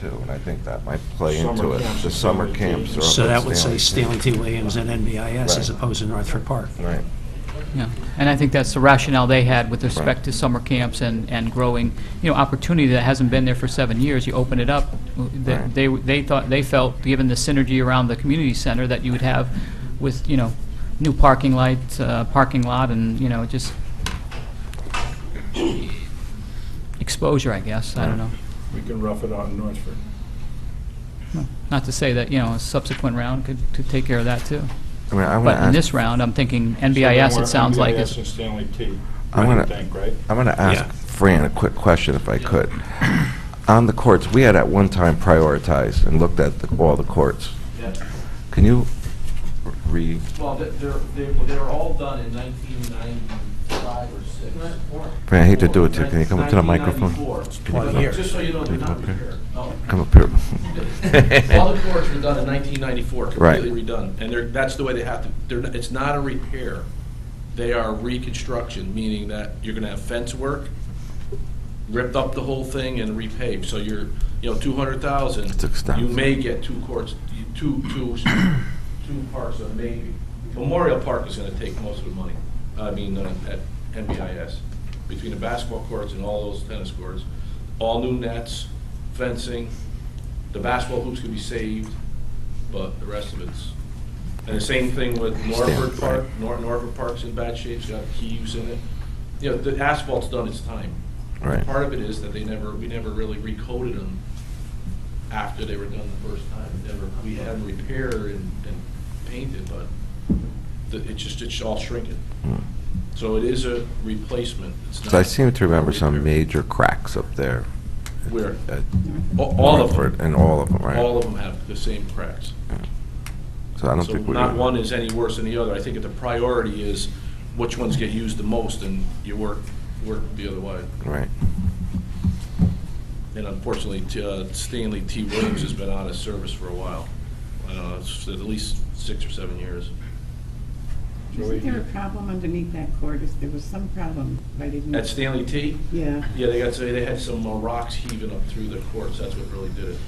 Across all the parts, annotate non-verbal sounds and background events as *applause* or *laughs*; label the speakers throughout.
Speaker 1: too, and I think that might play into
Speaker 2: Summer
Speaker 1: it.
Speaker 2: camps
Speaker 1: The
Speaker 2: are
Speaker 1: summer
Speaker 2: Stanley
Speaker 1: camps
Speaker 2: T.
Speaker 1: are up
Speaker 3: So
Speaker 1: at
Speaker 3: that would say
Speaker 1: Stanley
Speaker 3: Stanley T. Williams and NBIS as
Speaker 1: Right.
Speaker 3: opposed to Northford Park.
Speaker 1: T. Right.
Speaker 4: Yeah, and I think that's the rationale they had with respect to summer camps and, and growing, you know, opportunity that hasn't been there for seven years. You open it up, they,
Speaker 1: Right.
Speaker 4: they they thought, they felt, given the synergy around the community center that you would have with, you know, new parking lights, uh, parking lot, and, you know, just exposure, I guess, I don't know.
Speaker 2: We can rough it out in Northford.
Speaker 4: Not to say that, you know, a subsequent round could, could take care of that, too.
Speaker 1: I mean, I'm gonna
Speaker 4: But in
Speaker 1: ask,
Speaker 4: this round, I'm thinking
Speaker 2: So they
Speaker 4: NBIS,
Speaker 2: want
Speaker 4: it sounds like,
Speaker 2: NBIS and
Speaker 4: is,
Speaker 2: Stanley T.
Speaker 1: I'm
Speaker 2: I
Speaker 1: gonna-
Speaker 2: think, right?
Speaker 1: I'm gonna ask
Speaker 3: Yeah.
Speaker 1: Fran a quick question if I could. On the courts, we had at one time prioritized and looked at the- all the courts.
Speaker 5: Yeah,
Speaker 1: Can you re,
Speaker 5: well, they- they're, they well, they were all done in 1995 or 6.
Speaker 1: Fran, I hate to do it to you, can you come up to the microphone?
Speaker 5: 1994.
Speaker 1: Can you come up-
Speaker 5: Just so you know,
Speaker 1: Can
Speaker 5: they're
Speaker 1: you come
Speaker 5: not
Speaker 1: up here?
Speaker 5: here. No.
Speaker 1: Come up here.
Speaker 5: *laughs* All the courts were done in 1994,
Speaker 1: Right.
Speaker 5: completely redone, and they're, that's the way they have to, they're, not- it's not a repair. They are reconstruction, meaning that you're gonna have fence work, ripped up the whole thing and repaved, so you're, you know, 200,000.
Speaker 1: It's expensive.
Speaker 5: You may get two courts, you- two, two, two parks, uh, maybe. Memorial Park is gonna take most of the money, I mean, uh, at NBIS, between the basketball courts and all those tennis courts, all new nets, fencing, the basketball hoops could be saved, but the rest of it's, and the same thing with Norford
Speaker 1: Stand,
Speaker 5: Park,
Speaker 1: right.
Speaker 5: Nor- Norford Park's in bad shape, it's got heaves in it. You know, the asphalt's done its time.
Speaker 1: Right.
Speaker 5: Part of it is that they never, we never really recoded them after they were done the first time. Never, we had them repaired and, and painted, but the- it just, it's all shrinking. So it is a replacement. It's
Speaker 1: So Hmm. I
Speaker 5: not
Speaker 1: seem to remember some
Speaker 5: repair.
Speaker 1: major cracks up there.
Speaker 5: Where?
Speaker 1: at
Speaker 5: A- All of
Speaker 1: Northford,
Speaker 5: them,
Speaker 1: And all of them, right?
Speaker 5: all of them have the same cracks.
Speaker 1: So I don't
Speaker 5: So
Speaker 1: think we.
Speaker 5: not one is any worse than the other. I think that the priority is which ones get used the most, and you work, work the other way.
Speaker 1: Right.
Speaker 5: And unfortunately, T- uh, Stanley T. Williams has been out of service for a while. I don't know, it's at least six or seven years.
Speaker 6: Isn't there a problem underneath that court? Is- There was some problem, but I didn't.
Speaker 5: At Stanley T.,
Speaker 6: Yeah.
Speaker 5: yeah, they got, they had some uh, rocks heaving up through the courts, that's what really did it.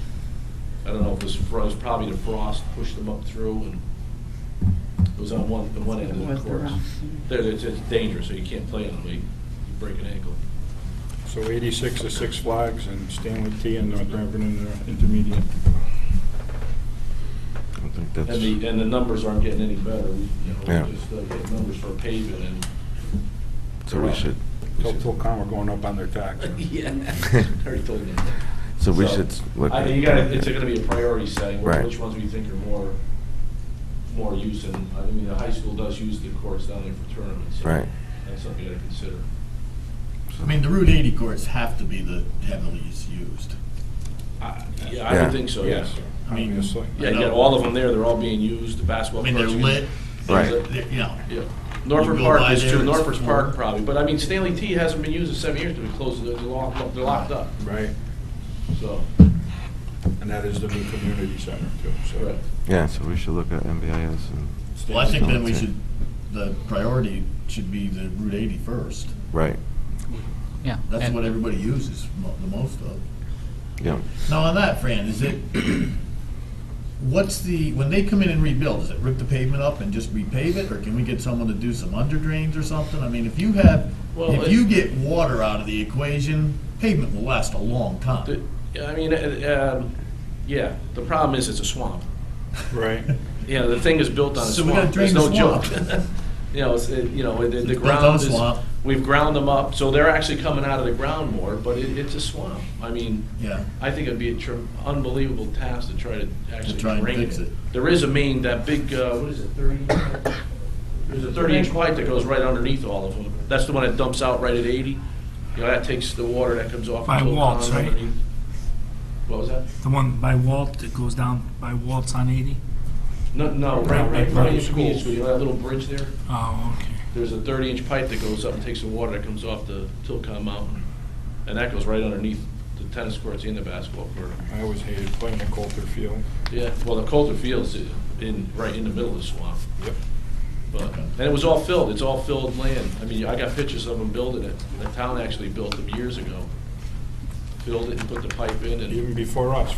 Speaker 5: I don't know if it was, fro- it was probably the frost pushed them up through, and it was on one, the one end of
Speaker 6: It
Speaker 5: the
Speaker 6: was the
Speaker 5: courts.
Speaker 6: rocks.
Speaker 5: They're, it's it's dangerous, so you can't play on them, you you break an ankle.
Speaker 2: So 86 is Six Flags and Stanley T and North River Intermediate.
Speaker 1: I think
Speaker 5: And the,
Speaker 1: that's,
Speaker 5: and the numbers aren't getting any better, We- you know,
Speaker 1: Yeah.
Speaker 5: we just uh, get numbers for paving and
Speaker 1: so we should. we
Speaker 2: Tell
Speaker 1: should-
Speaker 2: Tilcon we're going up on their tax.
Speaker 5: *laughs* Yeah, already told me.
Speaker 1: So we should look.
Speaker 5: I-
Speaker 1: at-
Speaker 5: You gotta, it's gonna be a priority setting, wh-
Speaker 1: Right.
Speaker 5: which ones we think are more, more use, and, I mean, the high school does use the courts down there for tournaments. so
Speaker 1: Right.
Speaker 5: That's something you gotta consider.
Speaker 7: I mean, the Route 80 courts have to be the heavily used.
Speaker 5: I- Yeah, I
Speaker 1: Yeah.
Speaker 5: would think so, yes.
Speaker 7: I mean,
Speaker 2: Obviously.
Speaker 5: Yeah, you got all of them there, they're all being used, the basketball
Speaker 7: I
Speaker 5: courts.
Speaker 7: mean, they're
Speaker 5: are-
Speaker 7: lit,
Speaker 1: Right.
Speaker 7: they're- they're, you know,
Speaker 5: Yeah, Norfolk
Speaker 7: go
Speaker 5: Park
Speaker 7: by
Speaker 5: is
Speaker 7: there,
Speaker 5: true,
Speaker 7: it's
Speaker 5: Norfolk
Speaker 7: full.
Speaker 5: Park probably, but I mean, Stanley T hasn't been used in seven years, they're closed, they're locked, up- they're locked up,
Speaker 2: Right,
Speaker 5: so,
Speaker 2: and that is the new community center too, so.
Speaker 5: correct.
Speaker 1: Yeah, so we should look at MBIS and,
Speaker 7: well, I think then we should, the priority should be the Route 80 first.
Speaker 1: right,
Speaker 4: yeah.
Speaker 7: That's
Speaker 4: and-
Speaker 7: what everybody uses mo- the most of.
Speaker 1: yeah.
Speaker 7: Now, on that, Fran, is it, what's the, when they come in and rebuild, is it rip the pavement up and just repave it? Or can we get someone to do some under drains or something? I mean, if you have,
Speaker 5: Well,
Speaker 7: if
Speaker 5: it-
Speaker 7: you get water out of the equation, pavement will last a long
Speaker 5: The-
Speaker 7: time.
Speaker 5: I mean, uh, um, yeah, the problem is it's a swamp.
Speaker 2: Right.
Speaker 5: You know, the thing is built on a
Speaker 7: So we gotta
Speaker 5: swamp. There's no
Speaker 7: drain the
Speaker 5: joke.
Speaker 7: swamp.
Speaker 5: You know, it's, it- you know, the- the
Speaker 7: It's built on
Speaker 5: ground is,
Speaker 7: swamp.
Speaker 5: we've ground them up, so they're actually coming out of the ground more, but it, it's a swamp. I mean,
Speaker 7: *laughs* Yeah.
Speaker 5: I think it'd be a tr- unbelievable task to try to actually
Speaker 7: try and
Speaker 5: drain
Speaker 7: fix
Speaker 5: it.
Speaker 7: it.
Speaker 5: There is a main, that big, uh, what is it, thirty? There's a thirty-inch pipe that goes right underneath all of them. That's the one that dumps out right at eighty. You know, that takes the water that comes off.
Speaker 8: By
Speaker 5: Tilcon
Speaker 8: Waltz, right?
Speaker 5: underneath. What was that?
Speaker 8: The one by Walt that goes down by Walt's on 80?
Speaker 5: No, no, right,
Speaker 8: Right,
Speaker 5: right,
Speaker 8: right,
Speaker 5: right,
Speaker 8: right.
Speaker 5: school, so you know that little bridge there?
Speaker 8: Oh, okay.
Speaker 5: There's a thirty-inch pipe that goes up and takes the water that comes off the Tilcon Mountain, and that goes right underneath the tennis courts and the basketball court.
Speaker 2: I always hated playing at Coulter Field.
Speaker 5: Yeah, well, the Coulter Field's i- in, right in the middle of the swamp,
Speaker 2: Yep.
Speaker 5: but, and it was all filled, it's all filled land. I mean, I got pictures of them building it, the town actually built them years ago. Filled it and put the pipe in and.
Speaker 2: Even before us,